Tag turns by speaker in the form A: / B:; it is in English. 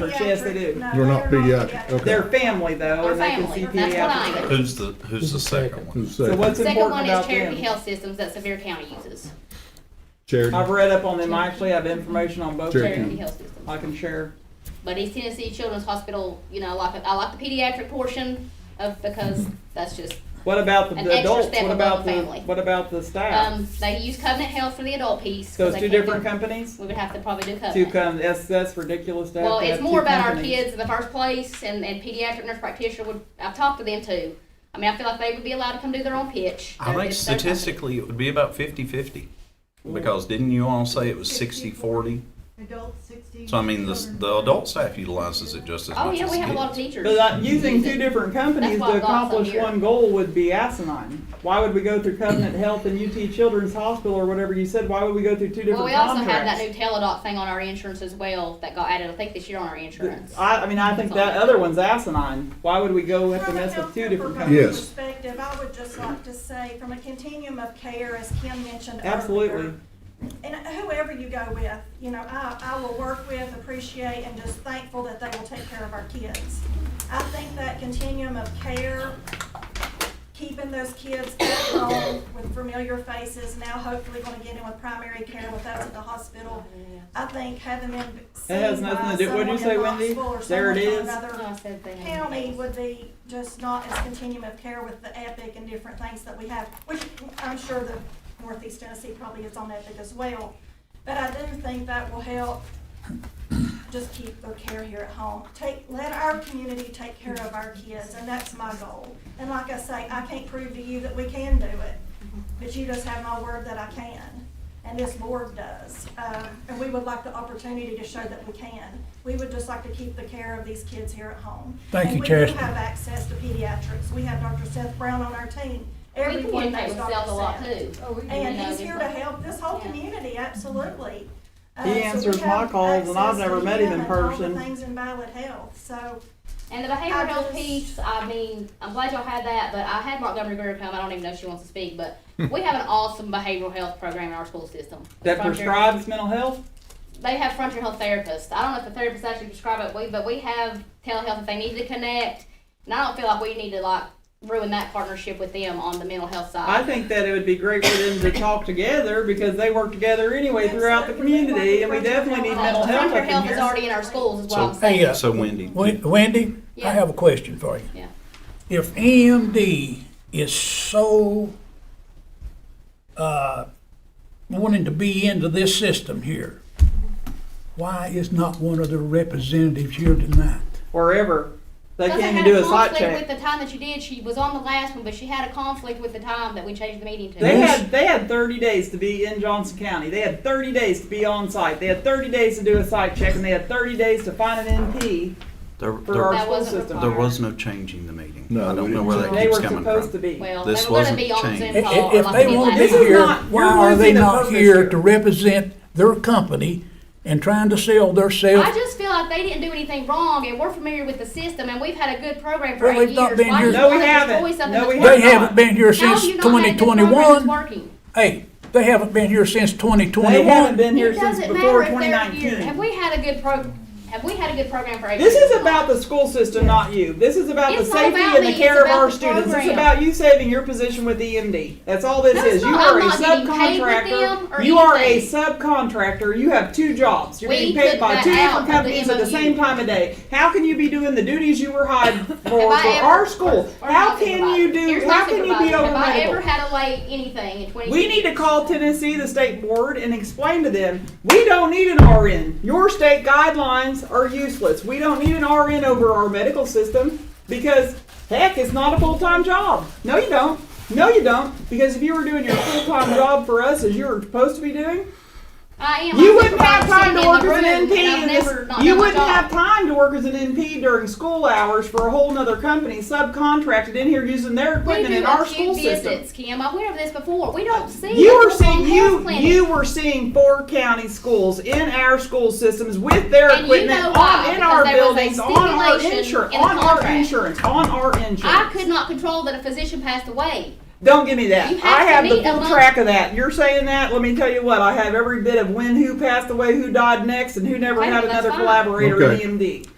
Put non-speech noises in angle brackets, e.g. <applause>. A: Yes, they do.
B: They're not pediatric, okay.
A: They're family though,
C: They're
A: and they can see
C: family. That's what I
A: pediatric.
C: am.
D: Who's the, who's the second one?
B: Who's
A: So
B: second?
A: what's
C: Second
A: important
C: one is
A: about
C: Cherokee
A: them?
C: Health Systems that Sevier County uses.
B: Charity?
A: I've read up on them. I actually have information on both of
B: Cherokee.
C: Cherokee
A: them.
C: Health Systems.
A: I can share.
C: But East Tennessee Children's Hospital, you know, I like, I like the pediatric portion of, because that's just,
A: What about the
C: An extra
A: adults?
C: step
A: What
C: above
A: about
C: the
A: the,
C: family.
A: what about the
C: um,
A: staff?
C: they use Covenant Health for the adult piece. 'cause
A: So it's
C: they
A: two
C: can't do-
A: different companies?
C: We would have to probably do
A: Two
C: Covenant.
A: com, that's, that's ridiculous to have
C: Well,
A: to have
C: it's
A: two
C: more about our
A: companies.
C: kids in the first place and, and pediatric nurse practitioner would, I've talked to them too. I mean, I feel like they would be allowed to come do their own pitch.
D: I
C: They're
D: think
C: just- they're-
D: statistically, it would be about fifty-fifty, because didn't you all say it was sixty-forty?
E: Adult sixty.
D: So I mean, the, the adult staff utilizes it just as
C: Oh,
D: much
C: yeah,
D: as
C: we have a lot
D: the
C: of
D: kids.
C: teachers.
A: But uh, using
C: use
A: two
C: it.
A: different companies
C: That's why
A: to
C: I've got some
A: accomplish
C: here.
A: one goal would be asinine. Why would we go through Covenant Health and UT Children's Hospital or whatever you said? Why would we go through two different
C: Well, we also have that
A: contracts?
C: new teledoc thing on our insurance as well that got added, I think this year on our insurance.
A: I, I mean, I think that other one's asinine. Why would we go have to mess with two different
B: companies?
A: companies?
B: Yes.
E: Perspective, I would just like to say, from a continuum of care, as Kim mentioned earlier.
A: Absolutely.
E: And whoever you go with, you know, I, I will work with, appreciate, and just thankful that they will take care of our kids. I think that continuum of care, keeping those kids at home with familiar faces, now hopefully gonna get in with primary care with those at the hospital. I think having them seen by
A: has nothing
E: someone
A: to do- what'd
E: in
A: you say, Wendy?
E: Knoxville or
A: There
E: someone
A: it
E: from
A: is.
E: another
C: Oh, I said they had-
E: county would be just not as continuum of care with the Epic and different things that we have, which I'm sure the Northeast Tennessee probably is on Epic as well. But I do think that will help just keep their care here at home. Take, let our community take care of our kids, and that's my goal. And like I say, I can't prove to you that we can do it, but you just have my word that I can, and this board does. Um, and we would like the opportunity to show that we can. We would just like to keep the care of these kids here at home.
F: Thank you,
E: And we do
F: Chastity.
E: have access to pediatrics. We have Dr. Seth Brown on our team.
C: We
E: Everyone knows
C: communicate with
E: Dr.
C: sales a lot
E: Seth.
C: too.
E: And
C: You know,
E: he's
C: just
E: here to
C: like-
E: help this whole
C: Yeah.
E: community, absolutely. Uh,
A: He
E: so we
A: answers my
E: have
A: calls, and I've
E: access to
A: never met him in
E: and all the
A: person.
E: Things in Valid Health, so
C: And the behavioral health
E: just-
C: piece, I mean, I'm glad y'all had that, but I had Montgomery Greer come, I don't even know if she wants to speak, but
E: Hmm.
C: we have an awesome behavioral health program in our school system.
A: That
C: Frontier-
A: prescribes mental health?
C: They have frontier health therapists. I don't know if the therapists actually prescribe it, we, but we have telehealth if they need to connect. And I don't feel like we need to like ruin that partnership with them on the mental health side.
A: I think that it would be great for them to talk together because they work together anyway throughout the community, and we definitely need mental health
C: Frontier
A: up in
C: health is
A: here.
C: already in our schools, is what I'm
D: So-
C: saying.
F: Hey, uh,
D: So Wendy,
F: Wen- Wendy,
C: Yeah.
F: I have a question for you.
C: Yeah.
F: If EMD is so uh, wanting to be into this system here, why is not one of their representatives here tonight?
A: Wherever. They
C: Because I
A: can't even
C: had
A: do a site
C: conflict
A: check.
C: With the time that you did, she was on the last one, but she had a conflict with the time that we changed the meeting to.
A: They
F: Yes.
A: had, they had thirty days to be in Johnson County. They had thirty days to be on site. They had thirty days to do a site check, and they had thirty days to find an NP
D: there,
A: for our
D: there,
C: That
A: school
C: wasn't
A: system.
D: there was no changing the meeting.
B: No,
D: I
B: we
D: don't know
B: didn't
D: where
B: change
D: that
B: it.
A: They were
D: keeps coming
A: supposed to
D: from.
A: be.
C: well,
D: This
C: they were going
D: wasn't
C: to be on Zoom
D: changed.
F: I-
C: call.
A: Oh,
F: i-
C: or
F: If
C: like
F: they
C: we did
F: want to be
A: This
C: last
A: is
C: time.
F: here,
A: not-
F: why
A: you're
F: are they
A: losing the
F: not
A: purpose
F: here
A: here.
F: to represent their company and trying to sell their self?
C: I just feel like they didn't do anything wrong, and we're familiar with the system, and we've had a good program for
F: Well,
C: eight
F: they've not
C: years.
F: been
C: Why
F: here-
C: do you
A: No, we
C: want to
A: haven't.
C: destroy something
A: No, we
C: that's
F: They
A: have
C: working?
F: haven't been here
C: How
F: since
C: have you not had a good program that's
F: 2021.
C: working?
F: Hey, they haven't been here since 2021.
A: They haven't been here
C: It
A: since
C: doesn't matter
A: before
C: if
A: twenty
C: they're here. Have
A: nineteen.
C: we had a good pro, have we had a good program for eight years?
A: This is about the school system, not you. This is about the
C: It's not
A: safety
C: about
A: and the
C: me,
A: care
C: it's
A: of our
C: about the
A: students. It's
C: program.
A: about you saving your position with EMD. That's all this
C: No,
A: is.
C: it's
A: You
C: not.
A: are a
C: I'm not getting paid with them
A: subcontractor.
C: or
A: You are a
C: anything.
A: subcontractor. You have two jobs. You're
C: We
A: getting paid
C: took
A: by
C: that
A: two
C: out
A: different
C: of E the
A: companies at the
C: MOU.
A: same time of day. How can you be doing the duties you were hired for for
C: <laughs> Have I ever-
A: our school?
C: or
A: How
C: my
A: can
C: supervisor?
A: you do,
C: Here's my
A: how can you be
C: supervisor.
A: over
C: Have I ever
A: medical?
C: had a late anything in twenty?
A: We need to call Tennessee, the state board, and explain to them, we don't need an RN. Your state guidelines are useless. We don't need an RN over our medical system because heck, it's not a full-time job. No, you don't. No, you don't. Because if you were doing your full-time job for us as you were supposed to be doing,
C: I am.
A: you
C: I'm
A: wouldn't have
C: supervised
A: time to
C: sitting in
A: work
C: the
A: as an
C: room,
A: NP.
C: and I've
A: in this-
C: never not
A: You
C: done my
A: wouldn't
C: job.
A: have time to work as an NP during school hours for a whole nother company subcontracted in here using their
C: We
A: equipment
C: do
A: in our
C: a
A: school
C: few
A: system.
C: visits, Kim. I'm aware of this before. We don't see.
A: You
C: a
A: were
C: full-blown
A: seeing
C: health
A: you
C: clinic.
A: you were seeing four county schools in our school systems with their
C: And you
A: equipment
C: know
A: on,
C: why,
A: in
C: because
A: our
C: there was a
A: buildings on our
C: stipulation
A: insurance
C: in the
A: on our
C: contract.
A: insurance on our insurance.
C: I could not control that a physician passed away.
A: Don't give me that.
C: You have
A: I
C: to
A: have the
C: meet
A: full
C: among-
A: track of that. You're saying that. Let me tell you what. I have every bit of when, who passed away, who died next, and who never
C: Okay,
A: had
C: that's
A: another
C: fine.
A: collaborator
B: Okay.
A: in E EMD.